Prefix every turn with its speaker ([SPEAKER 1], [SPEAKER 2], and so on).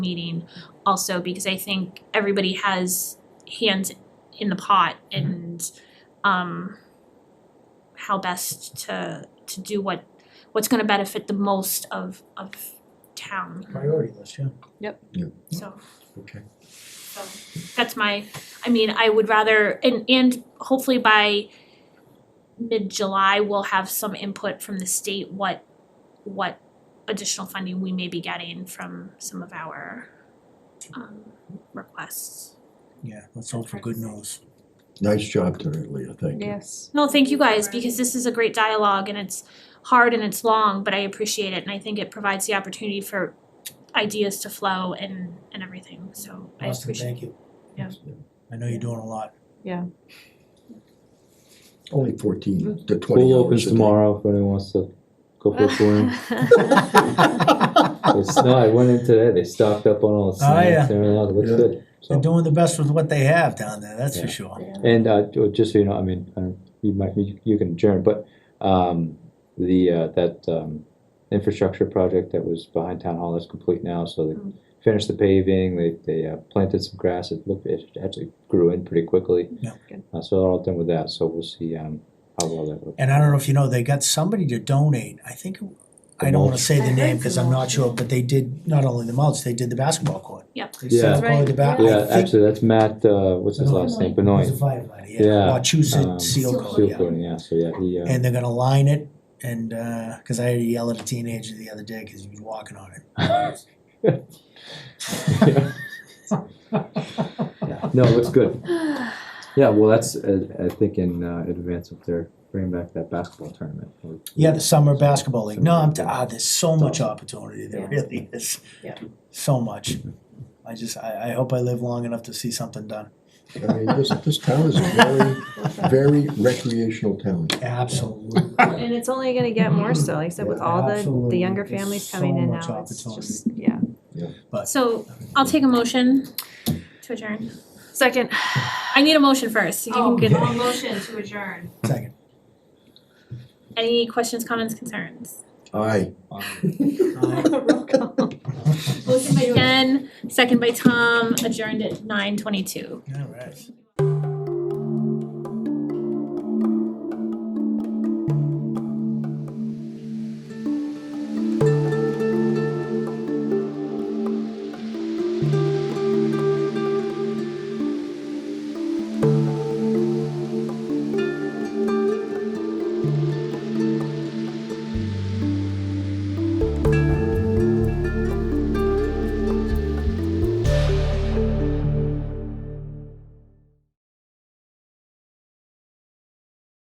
[SPEAKER 1] meeting also because I think everybody has hands in the pot and um how best to to do what what's gonna benefit the most of of town,
[SPEAKER 2] Priority list, yeah.
[SPEAKER 1] so
[SPEAKER 2] Okay.
[SPEAKER 1] so that's my, I mean, I would rather, and and hopefully by mid-July, we'll have some input from the state what what additional funding we may be getting from some of our um requests.
[SPEAKER 2] Yeah, let's hope for good news.
[SPEAKER 3] Nice job tonight, Leah, thank you.
[SPEAKER 4] Yes.
[SPEAKER 1] No, thank you guys, because this is a great dialogue and it's hard and it's long, but I appreciate it and I think it provides the opportunity for ideas to flow and and everything, so I
[SPEAKER 2] Austin,
[SPEAKER 1] appreciate it.
[SPEAKER 2] thank you.
[SPEAKER 1] Yeah.
[SPEAKER 2] I know you're doing a lot.
[SPEAKER 3] Only fourteen to twenty
[SPEAKER 5] Pool
[SPEAKER 3] hours
[SPEAKER 5] opens
[SPEAKER 3] a day.
[SPEAKER 5] tomorrow if anyone wants to go for a swim. It's, no, I went in today, they stocked up on all the
[SPEAKER 2] Oh, yeah.
[SPEAKER 5] snacks and everything else, it looks
[SPEAKER 3] Yeah.
[SPEAKER 5] good,
[SPEAKER 2] They're
[SPEAKER 5] so.
[SPEAKER 2] doing the best with what they have down there, that's for
[SPEAKER 5] Yeah.
[SPEAKER 2] sure.
[SPEAKER 5] And, uh, ju- just so you know, I mean, I don't- you might, you you can adjourn, but, um, the, uh, that, um, infrastructure project that was behind Town Hall is complete now, so they
[SPEAKER 1] Mm.
[SPEAKER 5] finished the paving, they, they uh, planted some grass, it looked, it actually grew in pretty quickly.
[SPEAKER 2] Yeah.
[SPEAKER 4] Good.
[SPEAKER 5] Uh, so they're all done with that, so we'll see, um, how well that looks.
[SPEAKER 2] And I don't know if you know, they got somebody to donate, I think, I don't wanna say the name, cause I'm not sure, but they did not only the mulch, they did the basketball court.
[SPEAKER 1] Yep.
[SPEAKER 2] They
[SPEAKER 5] Yeah.
[SPEAKER 2] set up the ba-
[SPEAKER 4] Right,
[SPEAKER 5] Yeah,
[SPEAKER 2] I think.
[SPEAKER 5] actually, that's Matt, uh, what's his last name, Benoit.
[SPEAKER 2] He's a firefighter, yeah,
[SPEAKER 5] Yeah, um,
[SPEAKER 2] Wachusett Seal
[SPEAKER 1] Seal
[SPEAKER 2] Coat,
[SPEAKER 5] Seal
[SPEAKER 2] yeah.
[SPEAKER 5] coating, yeah, so yeah, he, uh,
[SPEAKER 2] And they're gonna line it and, uh 'cause cause I had to yell at a teenager the other day, cause he was walking on it.
[SPEAKER 5] yeah. No, it looks good. Yeah, well, that's, uh, I think in, uh, advance of their bringing back that basketball tournament. or-
[SPEAKER 2] Yeah, the summer basketball league. No, I'm, t- ah, there's so much opportunity, there really is.
[SPEAKER 4] Yeah.
[SPEAKER 2] So much. I just, I, I hope I live long enough to see something done.
[SPEAKER 3] I mean, this, this town is a very, very recreational town.
[SPEAKER 2] Absolutely.
[SPEAKER 4] And it's only gonna get more so, like I said, with all the, the younger
[SPEAKER 2] Absolutely. There's
[SPEAKER 4] families coming
[SPEAKER 2] so
[SPEAKER 4] in
[SPEAKER 2] much
[SPEAKER 4] now, it's
[SPEAKER 2] opportunity.
[SPEAKER 4] just, yeah.
[SPEAKER 1] So I'll take a motion to adjourn.
[SPEAKER 4] Second,
[SPEAKER 1] I need a motion first. You can
[SPEAKER 6] Oh,
[SPEAKER 1] get-
[SPEAKER 6] all motion to adjourn.
[SPEAKER 2] Second.
[SPEAKER 1] Any questions, comments, concerns?
[SPEAKER 3] Aye.
[SPEAKER 2] Aye.
[SPEAKER 4] roll call.
[SPEAKER 1] Motion by Jen, second by Tom, adjourned at nine twenty-two.
[SPEAKER 2] All right.